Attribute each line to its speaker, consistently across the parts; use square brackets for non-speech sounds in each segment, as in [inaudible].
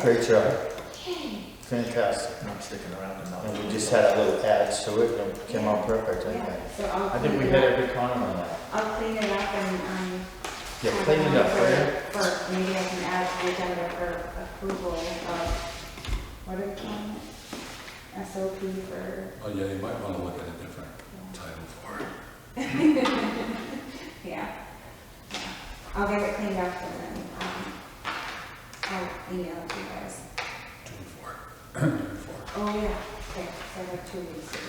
Speaker 1: Great job,
Speaker 2: Okay,
Speaker 1: fantastic.
Speaker 3: I'm sticking around enough.
Speaker 1: And we just had a little ads to it, and it came out perfect, I think.
Speaker 2: yeah, so I'll
Speaker 3: I think we
Speaker 2: clean
Speaker 3: hit
Speaker 2: it up.
Speaker 3: every corner on that.
Speaker 2: I'll clean it up and, um.
Speaker 1: Yeah, clean it up, right?
Speaker 2: For, for- maybe I can add to the agenda for approval of, what are we calling it? SOP for,
Speaker 4: Oh, yeah, you might want to look at a different title for it.
Speaker 2: yeah. I'll get it cleaned up and then, um, I'll email it to you guys.
Speaker 4: June fourth. June fourth.
Speaker 2: Oh, yeah, okay, so I have two weeks to do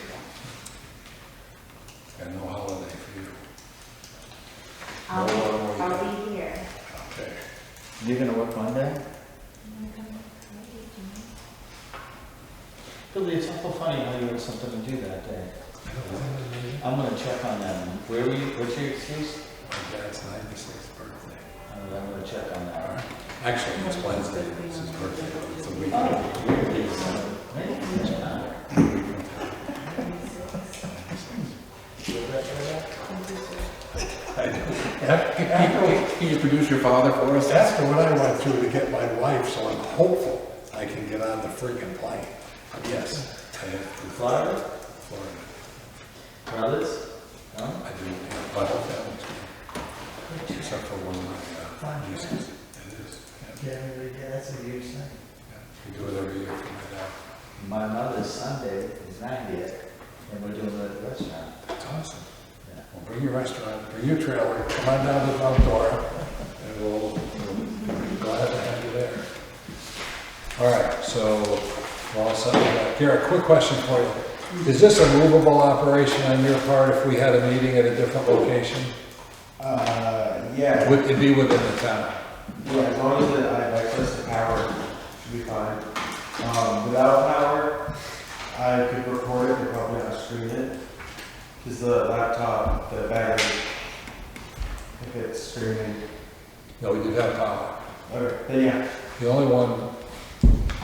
Speaker 2: that.
Speaker 4: And no holiday for you.
Speaker 2: I'll,
Speaker 3: Oh,
Speaker 2: be-
Speaker 3: yeah.
Speaker 2: I'll be here.
Speaker 4: Okay.
Speaker 3: You're gonna work Monday?
Speaker 2: I'm gonna come to my meeting.
Speaker 3: Billy, it's awful funny how you had something to do that day. I'm gonna check on that. Where were you, what's your excuse?
Speaker 4: My dad's ninety-sixth birthday.
Speaker 3: I'm gonna- I'm gonna check on
Speaker 4: All
Speaker 3: that.
Speaker 4: right. Actually, it's Wednesday, it's his birthday, it's a week.
Speaker 3: Oh, you're busy. Hey, you're not. You're right, you're right.
Speaker 4: [laughs] Can you produce your father for us?
Speaker 5: That's what I went through to get my wife, so I'm hopeful I can get on the freaking plane.
Speaker 4: Yes. I have to
Speaker 3: Florida?
Speaker 4: Florida.
Speaker 3: Brothers? No?
Speaker 4: I do, have my whole family's gone. Except for one of my uh, nieces. It is. yeah.
Speaker 6: Yeah, that's a huge thing.
Speaker 4: Yeah. We do it every year for my dad.
Speaker 3: My mother's Sunday is 90th, and we're doing it at the restaurant.
Speaker 4: It's awesome.
Speaker 3: Yeah.
Speaker 4: Well, bring your restaurant, bring your trailer, come on down to Mount Dora, and we'll, we'll be glad to have you there. All right, so, we're all set with that. Garrett, quick question for you. Is this a movable operation on your part if we had a meeting at a different location?
Speaker 7: Uh, yeah,
Speaker 4: Would it be within the town?
Speaker 7: yeah, as long as I have access to power, should be fine. Um, without power, I could record it, but probably not stream it. Cause the laptop, the battery, if it's streaming,
Speaker 4: No, we did have power.
Speaker 7: okay, then yeah,
Speaker 4: The only one,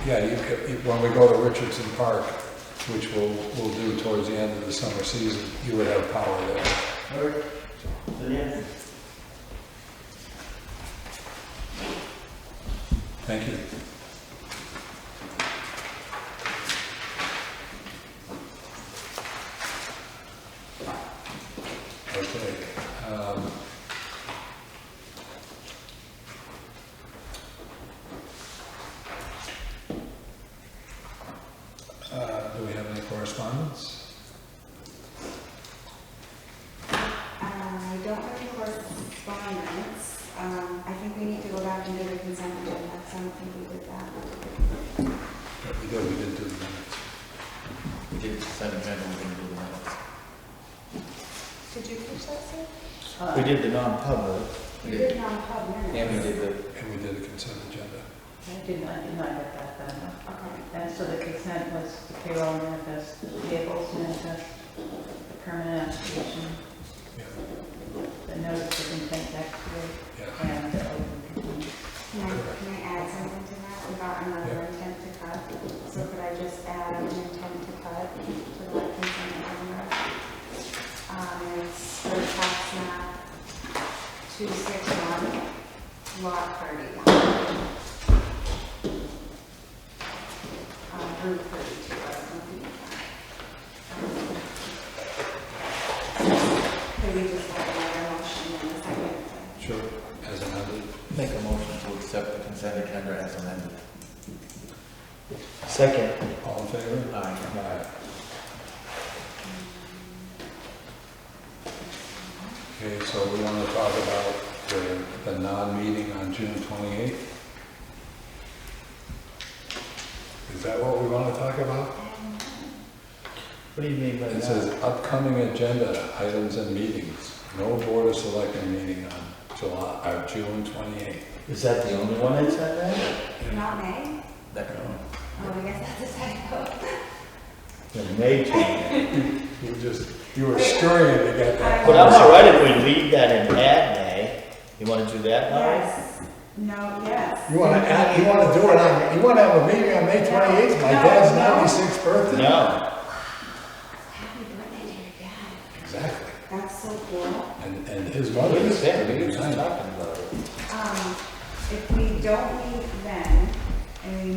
Speaker 4: yeah, you could, if- when we go to Richardson Park, which we'll, we'll do towards the end of the summer season, you would have power there.
Speaker 7: okay, then yeah.
Speaker 4: Thank you. Okay. um, uh, Do we have any correspondence?
Speaker 2: I don't have correspondence. Um, I think we need to go back and do the consent agenda, so I don't think we did that.
Speaker 4: But We did, we did do the minutes.
Speaker 3: We did send a memo, we're gonna do the minutes.
Speaker 2: Did you catch that, Sue?
Speaker 3: We did the non-public.
Speaker 2: You did non-pub minutes.
Speaker 3: And we did the,
Speaker 4: And we did a consent agenda.
Speaker 8: I did not, did not get that done.
Speaker 2: Okay.
Speaker 8: And so the consent was the payroll manifest, the payables manifest, the permanent application,
Speaker 4: Yeah,
Speaker 8: the notice of intent activity,
Speaker 4: yeah.
Speaker 8: and the open meeting.
Speaker 2: Can I, can I add something to that about another intent to cut? So could I just add an intent to cut to the consent agenda? Um, it's for tax map two six one, lot thirty. Um, Route thirty-two, I was looking at that. Um, Could we just have another motion in a second?
Speaker 4: Sure. As amended.
Speaker 3: make a motion to accept the consent agenda as amended.
Speaker 1: Second,
Speaker 4: All in favor?
Speaker 3: Aye.
Speaker 4: Aye. Okay, so we want to talk about the, the non-meeting on June 28th? Is that what we want to talk about?
Speaker 3: What do you mean by
Speaker 4: It says upcoming agenda items and meetings. No Board of Selectmen meeting on July, or June 28th.
Speaker 3: Is that the only one that said that?
Speaker 2: Not May?
Speaker 3: That one.
Speaker 2: Oh, I guess that's a typo.
Speaker 3: The May change.
Speaker 4: You just, you were scurrying to get that.
Speaker 1: but I'm all right if we leave that in add May. You wanna do that, Mary?
Speaker 8: Yes, no, yes.
Speaker 5: You wanna add, you wanna do it on, you wanna have a meeting on May twenty-eighth, my dad's
Speaker 8: No, no.
Speaker 5: ninety-sixth birthday.
Speaker 1: No,
Speaker 2: Happy birthday to your dad.
Speaker 4: Exactly.
Speaker 2: That's so cool.
Speaker 4: And, and his
Speaker 1: what
Speaker 4: mother
Speaker 1: are you
Speaker 4: is
Speaker 1: saying? We were
Speaker 4: pretty
Speaker 1: just talking about it.
Speaker 2: Um, if we don't meet